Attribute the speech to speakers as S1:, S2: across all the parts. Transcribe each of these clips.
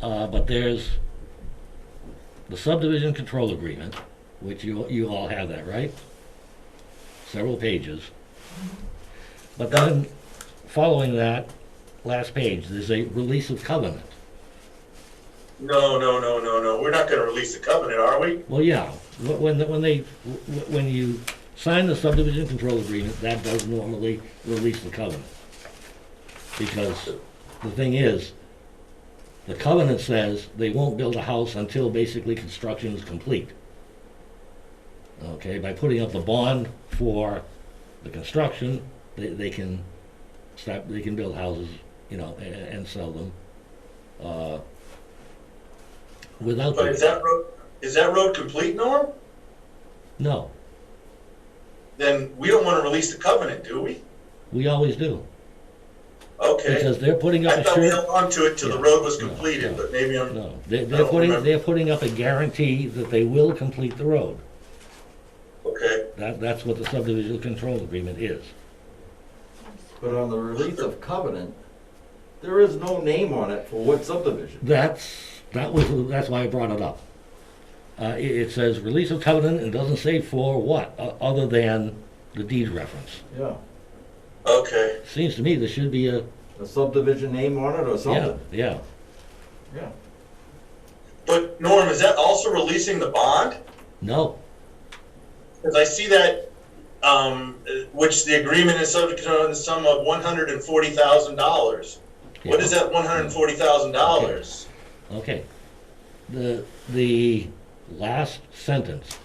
S1: Uh, but there's the subdivision control agreement, which you, you all have that, right? Several pages. But then, following that, last page, there's a release of covenant.
S2: No, no, no, no, no. We're not gonna release the covenant, are we?
S1: Well, yeah, wh- when, when they, wh- when you sign the subdivision control agreement, that does normally release the covenant. Because the thing is, the covenant says they won't build a house until basically construction is complete. Okay, by putting up the bond for the construction, they, they can start, they can build houses, you know, and, and sell them. uh, Without.
S2: But
S1: the-
S2: is that road, is that road complete, Norm?
S1: No.
S2: Then we don't wanna release the covenant, do we?
S1: We always do,
S2: Okay.
S1: because they're putting up
S2: I
S1: a
S2: thought we
S1: sure,
S2: held on to it till the
S1: Yeah,
S2: road was
S1: no,
S2: completed,
S1: no,
S2: but maybe I'm,
S1: no, they're,
S2: I
S1: they're
S2: don't
S1: putting,
S2: remember.
S1: they're putting up a guarantee that they will complete the road.
S2: okay.
S1: That, that's what the subdivision control agreement is.
S3: But on the release of covenant, there is no name on it for what subdivision.
S1: That's, that was, that's why I brought it up. Uh, it, it says release of covenant, and doesn't say for what, o- other than the deed reference.
S3: Yeah,
S2: Okay,
S1: Seems to me there should be a,
S3: a subdivision name on it or
S1: yeah,
S3: something.
S1: yeah,
S3: Yeah.
S2: but Norm, is that also releasing the bond?
S1: no,
S2: Because I see that, um, uh, which the agreement is subject to the sum of one hundred and forty thousand dollars. What
S1: Yeah.
S2: is that one hundred and forty thousand dollars?
S1: Okay. The, the last sentence.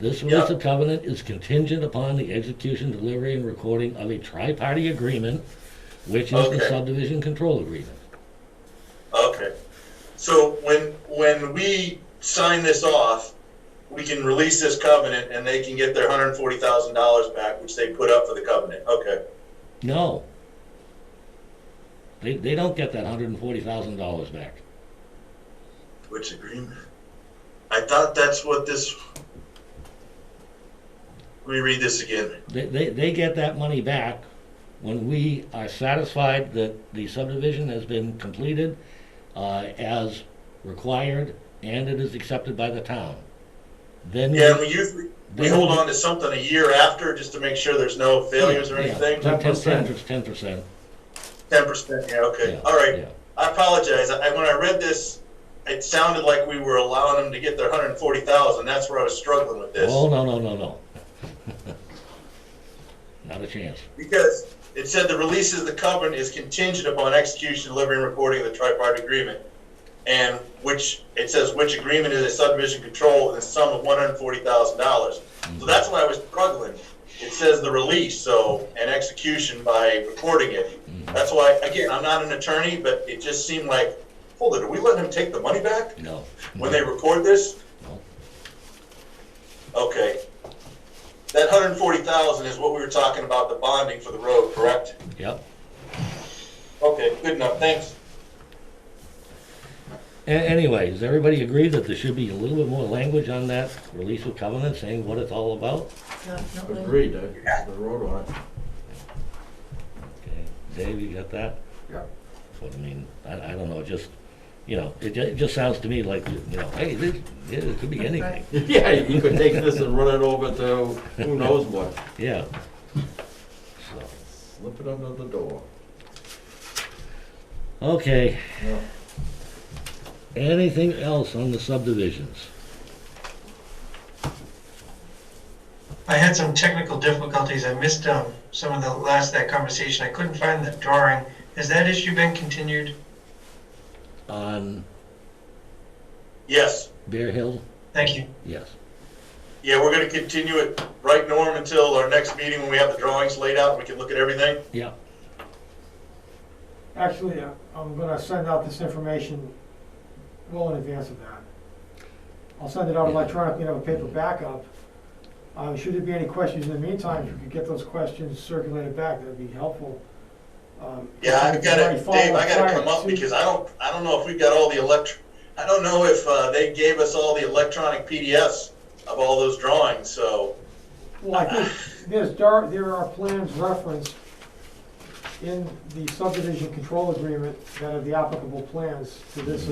S1: This release of covenant is contingent upon the execution, delivery, and recording of a tri-party agreement, which is the
S2: Okay.
S1: subdivision control agreement.
S2: Okay, so when, when we sign this off, we can release this covenant and they can get their hundred and forty thousand dollars back, which they put up for the covenant, okay?
S1: No. They, they don't get that hundred and forty thousand dollars back.
S2: Which agreement? I thought that's what this. Let me read this again.
S1: They, they, they get that money back when we are satisfied that the subdivision has been completed, uh, as required, and it is accepted by the town. Then. we-
S2: Yeah, and we usually, we hold on to something a year after just to make sure there's no failures or anything.
S1: Ten
S3: 10%.
S1: percent, ten percent.
S2: Ten percent, yeah, okay, all right. I apologize. I, when I read this, it sounded like we were allowing them to get their hundred and forty thousand. That's where I was struggling with this.
S1: Oh, no, no, no, no. Not a chance.
S2: Because it said the release of the covenant is contingent upon execution, delivery, and recording of the tripartite agreement. And which, it says which agreement is a subdivision control in the sum of one hundred and forty thousand dollars. So that's why I was struggling. It says the release, so, and execution by recording it. That's why, again, I'm not an attorney, but it just seemed like, hold it, are we letting them take the money back
S1: No.
S2: when they record this?
S1: No.
S2: Okay. That hundred and forty thousand is what we were talking about, the bonding for the road, correct?
S1: Yep.
S2: Okay, good enough, thanks.
S1: A- anyway, does everybody agree that there should be a little bit more language on that release of covenant saying what it's all about?
S4: Yeah, no, no.
S3: Agreed, I, the road on it.
S1: Okay, Dave, you got that?
S3: Yeah.
S1: That's what I mean. I, I don't know, just, you know, it, ju- it just sounds to me like, you know, hey, this, yeah, it could be anything.
S3: Yeah, you could take this and run it over to who knows what.
S1: Yeah. So,
S3: Slip it under the door.
S1: okay.
S3: Yeah.
S1: Anything else on the subdivisions?
S5: I had some technical difficulties. I missed um, some of the last of that conversation. I couldn't find the drawing. Has that issue been continued?
S1: On
S2: Yes,
S1: Bear Hill?
S5: Thank you.
S1: Yes.
S2: yeah, we're gonna continue it, right, Norm, until our next meeting when we have the drawings laid out, and we can look at everything?
S1: Yeah.
S6: Actually, uh, I'm gonna send out this information well in advance of that. I'll send it out
S1: Yeah.
S6: electronically and have a paper backup. Uh, should there be any questions in the meantime, if you could get those questions circulated back, that'd be helpful. Um,
S2: Yeah, I've
S6: if you
S2: gotta,
S6: already follow
S2: Dave, I gotta
S6: prior
S2: come up
S6: to-
S2: because I don't, I don't know if we've got all the electr, I don't know if, uh, they gave us all the electronic PDFs of all those drawings, so,
S6: Well, I think there's, dar- there are plans referenced in the subdivision control agreement that are the applicable plans to this